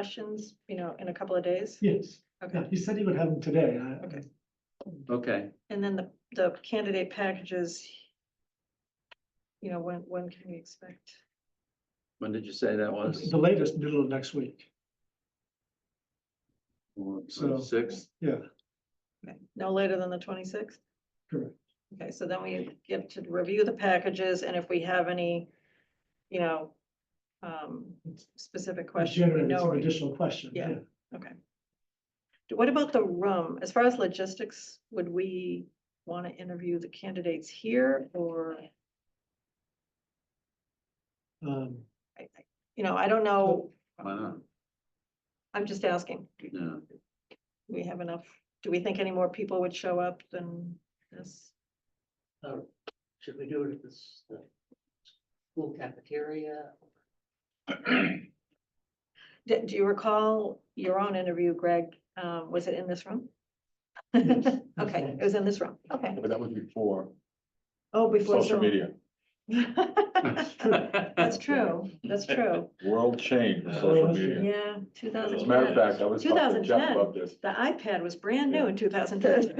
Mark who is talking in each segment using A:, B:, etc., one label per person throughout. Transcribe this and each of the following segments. A: questions, you know, in a couple of days?
B: Yes, yeah,
A: Okay,
B: he said he would have them today. I-
A: Okay.
C: Okay,
A: and then the, the candidate packages, you know, when, when can we expect?
C: when did you say that was?
B: The latest, middle of next week, So-
C: Sixth,
B: yeah,
A: Okay, No later than the twenty-sixth?
B: correct.
A: Okay, so then we get to review the packages and if we have any, you know, um, specific question, we
B: Generated some
A: know.
B: additional question,
A: Yeah.
B: yeah.
A: Okay. Do- What about the room? As far as logistics, would we want to interview the candidates here or,
B: Um,
A: I- I- you know, I don't know.
C: why not?
A: I'm just asking,
C: Yeah,
A: do we have enough, do we think any more people would show up than this?
D: Should we do it at this, uh, school cafeteria?
A: Do, do you recall your own interview, Greg? Um, was it in this room?
B: Yes,
A: Okay, it was in this room. Okay.
E: But that was before
A: Oh, before.
E: social
A: Zoom.
E: media.
A: That's true, that's true.
E: World change with
D: Uh,
E: social
B: that's
E: media.
A: Yeah, two thousand.
E: As a matter of fact, I was talking to Jeff
A: 2010.
E: about this.
A: The iPad was brand new in two thousand ten.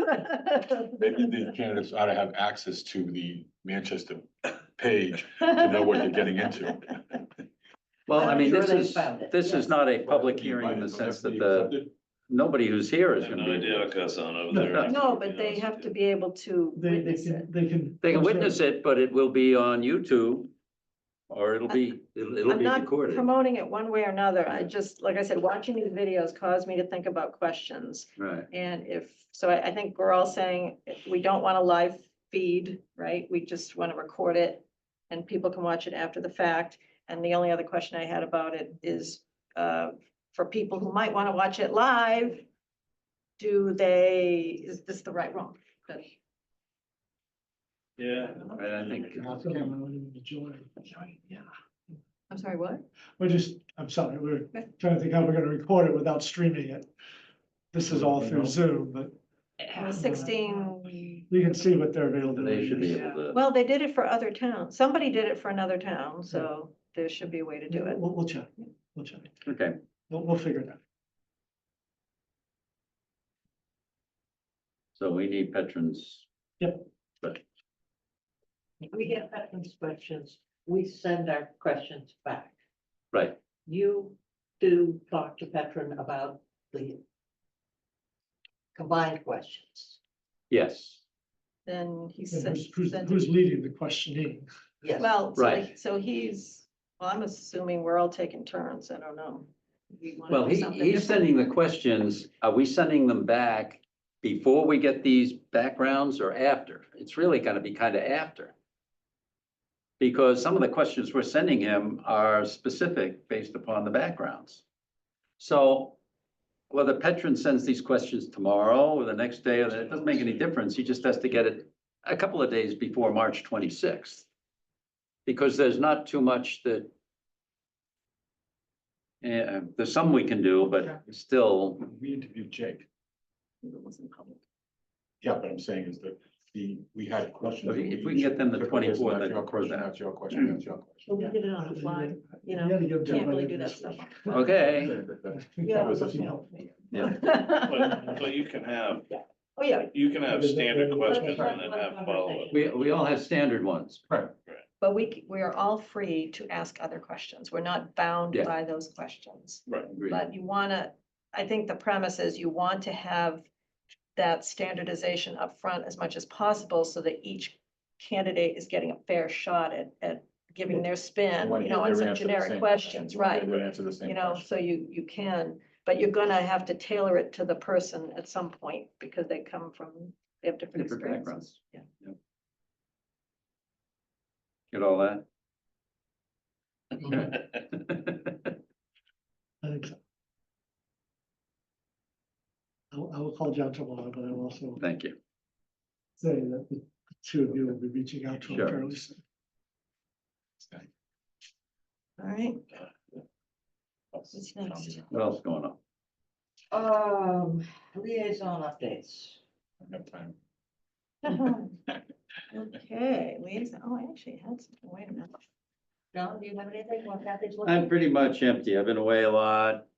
E: Maybe the candidates ought to have access to the Manchester page to know what they're getting into.
C: well, I
D: I'm
C: mean,
D: sure
C: this
D: they
C: is,
D: found it,
C: this
D: yes.
C: is not a public hearing in the sense that the, nobody who's here is
F: I have
C: gonna
F: no idea
C: be.
F: what goes on over
B: No,
F: there.
A: No, but they have to be able to
B: They, they
A: witness it.
B: can, they can.
C: They can witness it, but it will be on YouTube, or it'll be, it'll it'll
A: I'm
C: be
A: not
C: recorded.
A: promoting it one way or another. I just, like I said, watching these videos caused me to think about questions.
C: Right,
A: And if, so I, I think we're all saying we don't want a live feed, right? We just want to record it and people can watch it after the fact. And the only other question I had about it is, uh, for people who might want to watch it live, do they, is this the right room?
F: Yeah.
C: right, I think,
B: Yeah,
A: I'm sorry, what?
B: we're just, I'm sorry, we're trying to think how we're gonna record it without streaming it. This is all through Zoom, but
A: It was Sixteen,
B: you can see what their
C: they should
B: availability
C: be
B: is.
C: able to.
A: well, they did it for other towns. Somebody did it for another town, so there should be a way to do it.
B: We'll, we'll check, we'll check,
C: Okay,
B: we'll, we'll figure it out.
C: so we need veterans.
D: We get veterans questions, we send our questions back.
C: Right.
D: You do talk to veteran about the combined questions,
C: Yes,
A: Then he
B: And
A: said.
B: Who's, who's,
A: sent it
B: who's leading the questioning?
D: yes.
A: Well, so
C: Right.
A: he- so he's, well, I'm assuming we're all taking turns. I don't know. We wanna
C: well,
A: do
C: he,
A: something
C: he's
A: different.
C: sending the questions, are we sending them back before we get these backgrounds or after? It's really gonna be kind of after. Because some of the questions we're sending him are specific based upon the backgrounds. So whether Petron sends these questions tomorrow or the next day, or the- it doesn't make any difference. He just has to get it a couple of days before March twenty-sixth. Because there's not too much that yeah, there's some we can do, but still,
E: We interviewed Jake.
A: It wasn't public.
E: Yeah, but I'm saying is that the, we had questions.
C: If we- if we can get them the
E: Okay, so
C: 24,
E: That's
C: then-
E: your question, that's your question, that's your question.
D: But we did it on the fly,
A: you know,
B: gotta give
A: Can't really
B: everybody
A: do that
B: this.
A: stuff.
C: okay,
D: yeah,
B: That was a
D: listen,
B: few.
D: help me.
C: yeah,
F: But, but you can have,
A: Oh, yeah,
F: you can have standard questions
D: Right,
F: and then
D: right,
F: have
D: right,
F: follow-up.
C: we, we all have standard ones.
A: but we, c- we are all free to ask other questions. We're not bound
C: Yeah.
A: by those questions.
C: Agreed.
A: But you wanna, I think the premise is you want to have that standardization up front as much as possible so that each candidate is getting a fair shot at, at giving their spin,
E: Wanna
A: you
E: hear
A: know, on
E: their
A: some
E: answer to the
A: generic
E: same
A: questions, right?
E: They would answer the same
A: you know,
E: question.
A: so you, you can, but you're gonna have to tailor it to the person at some point because they come from, they have different
C: Different
A: experiences.
C: backgrounds.
A: Yeah.
C: Get all that?
B: I think so. I will, I will call John tomorrow, but I will also
C: Thank you.
B: say that the two of you will be reaching out to him
C: Sure.
B: fairly soon.
A: All right,
E: What's
A: next?
C: What else going on?
D: Um, liaison updates.
E: I have time.
A: okay, liaison, oh, I actually had some, wait a minute.
D: John, do you have anything? Well, Kathy's looking.
C: I'm pretty much empty. I've been away a lot.